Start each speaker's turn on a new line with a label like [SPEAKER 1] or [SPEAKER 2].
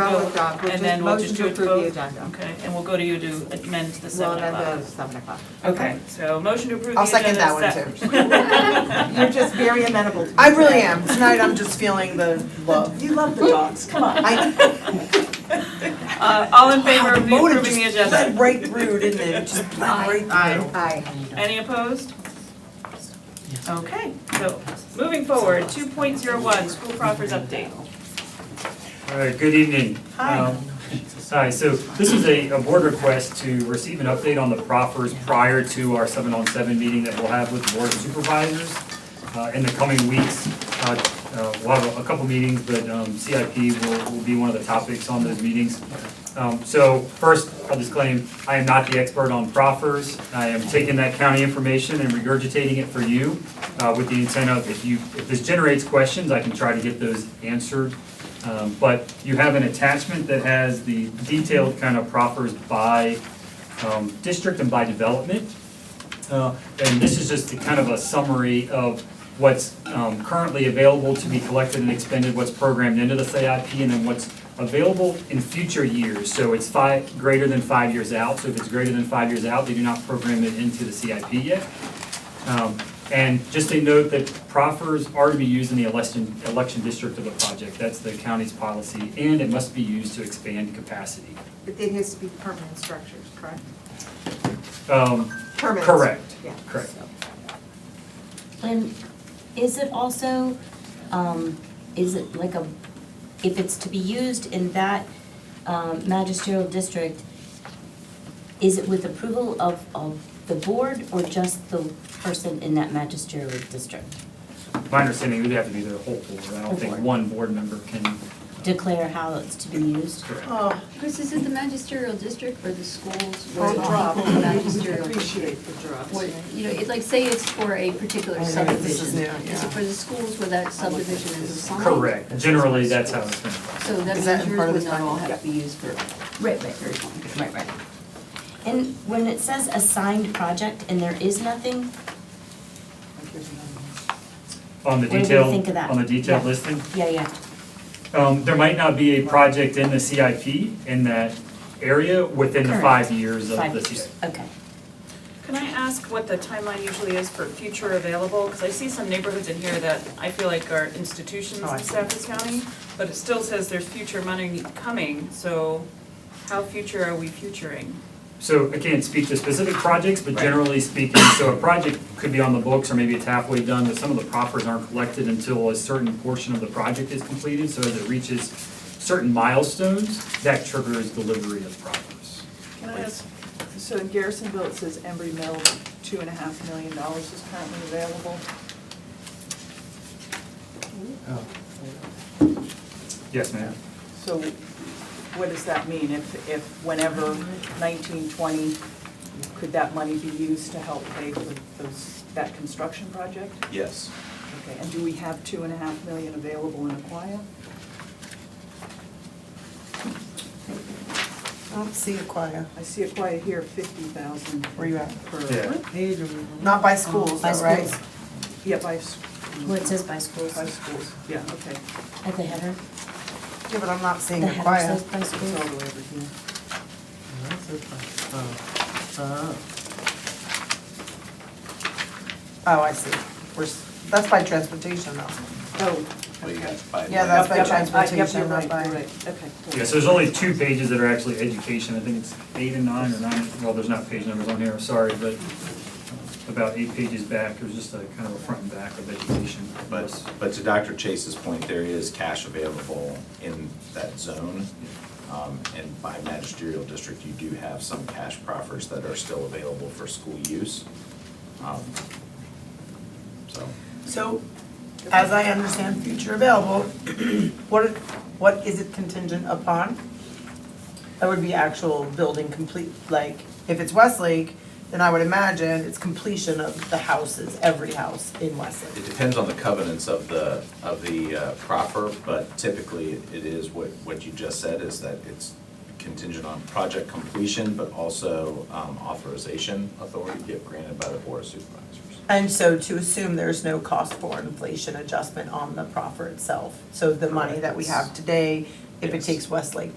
[SPEAKER 1] we'll
[SPEAKER 2] vote,
[SPEAKER 1] vote,
[SPEAKER 2] and then we'll just do it
[SPEAKER 1] Motion
[SPEAKER 2] to vote?
[SPEAKER 1] to approve the agenda.
[SPEAKER 2] Okay, and we'll go to you to amend the
[SPEAKER 1] Well,
[SPEAKER 2] seven
[SPEAKER 1] then the
[SPEAKER 2] eleven.
[SPEAKER 1] seven o'clock.
[SPEAKER 2] Okay, so motion to approve the
[SPEAKER 3] uh, I'll
[SPEAKER 2] agenda.
[SPEAKER 3] second that one
[SPEAKER 2] se-
[SPEAKER 3] too.
[SPEAKER 1] You're just very amenable to me.
[SPEAKER 3] I really
[SPEAKER 1] today.
[SPEAKER 3] am. Tonight I'm just feeling the love.
[SPEAKER 1] You love the dogs, come on.
[SPEAKER 3] I,
[SPEAKER 2] Uh, all in favor
[SPEAKER 3] the
[SPEAKER 2] of the-
[SPEAKER 3] motive
[SPEAKER 2] approving
[SPEAKER 3] just
[SPEAKER 2] the
[SPEAKER 3] bled
[SPEAKER 2] agenda?
[SPEAKER 3] right through, didn't it? It Just bled right through.
[SPEAKER 1] Aye.
[SPEAKER 2] Any opposed? Okay, so moving forward, two point zero one, school proffers update.
[SPEAKER 4] All right, good evening.
[SPEAKER 2] Hi.
[SPEAKER 4] Um, Hi, so this is a, a board request to receive an update on the proffers prior to our seven-on-seven meeting that we'll have with the board of supervisors uh, in the coming weeks. Uh, uh, We'll have a couple meetings, but um, CIP will, will be one of the topics on those meetings. Um, So first, I'll disclaim, I am not the expert on proffers. I am taking that county information and regurgitating it for you uh, with the intent of if you, if this generates questions, I can try to get those answered. Um, But you have an attachment that has the detailed kind of proffers by um, district and by development. Uh, And this is just a kind of a summary of what's um, currently available to be collected and expended, what's programmed into the CIP, and then what's available in future years. So it's five, greater than five years out. So if it's greater than five years out, they do not program it into the CIP yet. Um, And just a note that proffers are to be used in the election, election district of the project. That's the county's policy, and it must be used to expand capacity.
[SPEAKER 1] But it has to be permanent structures, correct?
[SPEAKER 4] Um,
[SPEAKER 1] Permanent.
[SPEAKER 4] Correct,
[SPEAKER 1] Yeah.
[SPEAKER 4] correct.
[SPEAKER 5] And is it also, um, is it like a, if it's to be used in that um, magisterial district, is it with approval of, of the board or just the person in that magisterial district?
[SPEAKER 4] My understanding, would have to be the whole board. I don't think one board member can.
[SPEAKER 5] Declare how it's to be used?
[SPEAKER 4] Correct.
[SPEAKER 3] Oh,
[SPEAKER 6] Chris, is it the magisterial district or the schools where
[SPEAKER 1] Or
[SPEAKER 6] the
[SPEAKER 1] drop.
[SPEAKER 6] people in the magisterial?
[SPEAKER 1] Appreciate the drops.
[SPEAKER 6] What- You know, it, like, say it's for a particular
[SPEAKER 3] I know, this is
[SPEAKER 6] subdivision.
[SPEAKER 3] new,
[SPEAKER 6] Is
[SPEAKER 3] yeah.
[SPEAKER 6] it for the schools where that subdivision is assigned?
[SPEAKER 4] Correct. Generally, that's how it's been.
[SPEAKER 6] So that
[SPEAKER 3] Is
[SPEAKER 6] means
[SPEAKER 3] that in
[SPEAKER 6] yours
[SPEAKER 3] part of
[SPEAKER 6] would
[SPEAKER 3] this
[SPEAKER 6] not all
[SPEAKER 3] document?
[SPEAKER 6] have to be used for
[SPEAKER 5] Right, right,
[SPEAKER 6] very long.
[SPEAKER 5] right, right. And when it says assigned project and there is nothing,
[SPEAKER 4] On the
[SPEAKER 5] What do you
[SPEAKER 4] detail,
[SPEAKER 5] think of that?
[SPEAKER 4] on the detailed
[SPEAKER 5] Yeah.
[SPEAKER 4] listing.
[SPEAKER 5] yeah, yeah,
[SPEAKER 4] Um, there might not be a project in the CIP in that area within the
[SPEAKER 5] Correct.
[SPEAKER 4] five years of
[SPEAKER 5] five
[SPEAKER 4] the
[SPEAKER 5] years,
[SPEAKER 4] CIP.
[SPEAKER 5] okay.
[SPEAKER 2] Can I ask what the timeline usually is for future available? Because I see some neighborhoods in here that I feel like are institutions
[SPEAKER 3] Oh, I
[SPEAKER 2] in
[SPEAKER 3] see.
[SPEAKER 2] Stafford County, but it still says there's future money coming, so how future are we futuring?
[SPEAKER 4] So I can't speak to specific projects, but
[SPEAKER 2] Right.
[SPEAKER 4] generally speaking, so a project could be on the books or maybe it's halfway done, but some of the proffers aren't collected until a certain portion of the project is completed. So as it reaches certain milestones, that triggers delivery of proffers.
[SPEAKER 7] Can I ask, so in Garrisonville, it says Embry Mill, two and a half million dollars is currently available.
[SPEAKER 4] Yes, ma'am.
[SPEAKER 7] So what does that mean? If, if whenever nineteen twenty, could that money be used to help pay for those, that construction project?
[SPEAKER 8] Yes.
[SPEAKER 7] Okay, and do we have two and a half million available in Aquia?
[SPEAKER 3] I don't see a choir.
[SPEAKER 7] I see Aquia here, fifty thousand.
[SPEAKER 3] Where you at?
[SPEAKER 4] Yeah.
[SPEAKER 7] Per,
[SPEAKER 3] Not by schools,
[SPEAKER 5] By
[SPEAKER 3] though, right?
[SPEAKER 5] schools.
[SPEAKER 7] yeah, by, s-
[SPEAKER 5] Well, it says by schools
[SPEAKER 7] by schools, yeah, okay.
[SPEAKER 5] at the header.
[SPEAKER 3] Yeah, but I'm not seeing
[SPEAKER 5] The
[SPEAKER 3] a
[SPEAKER 5] header
[SPEAKER 3] choir.
[SPEAKER 5] says by
[SPEAKER 7] It's all
[SPEAKER 5] schools.
[SPEAKER 7] the way over here.
[SPEAKER 3] Oh, I see. We're, s- that's by transportation though.
[SPEAKER 7] Oh.
[SPEAKER 8] Well, you guys buy
[SPEAKER 3] Yeah,
[SPEAKER 8] one.
[SPEAKER 3] that's by
[SPEAKER 7] Yep, yep, I- yep,
[SPEAKER 3] transportation,
[SPEAKER 7] you're
[SPEAKER 3] not
[SPEAKER 7] right,
[SPEAKER 3] by-
[SPEAKER 7] you're right. Okay. cool.
[SPEAKER 4] Yeah, so there's only two pages that are actually education, I think it's eight and nine or nine, well, there's not page numbers on here, sorry, but about eight pages back, there's just a kind of a front and back of education.
[SPEAKER 8] But, but to Dr. Chase's point, there is cash available in that zone. Um, And by magisterial district, you do have some cash proffers that are still available for school use. Um, So,
[SPEAKER 3] So, as I understand future available, what, what is it contingent upon? That would be actual building complete, like, if it's Westlake, then I would imagine it's completion of the houses, every house in Westlake.
[SPEAKER 8] it depends on the covenants of the, of the uh, proffer, but typically it is what, what you just said, is that it's contingent on project completion, but also um, authorization authority to get granted by the board of supervisors.
[SPEAKER 3] And so to assume there's no cost for inflation adjustment on the proffer itself. So the money that we have today, if it
[SPEAKER 8] Yes.
[SPEAKER 3] takes Westlake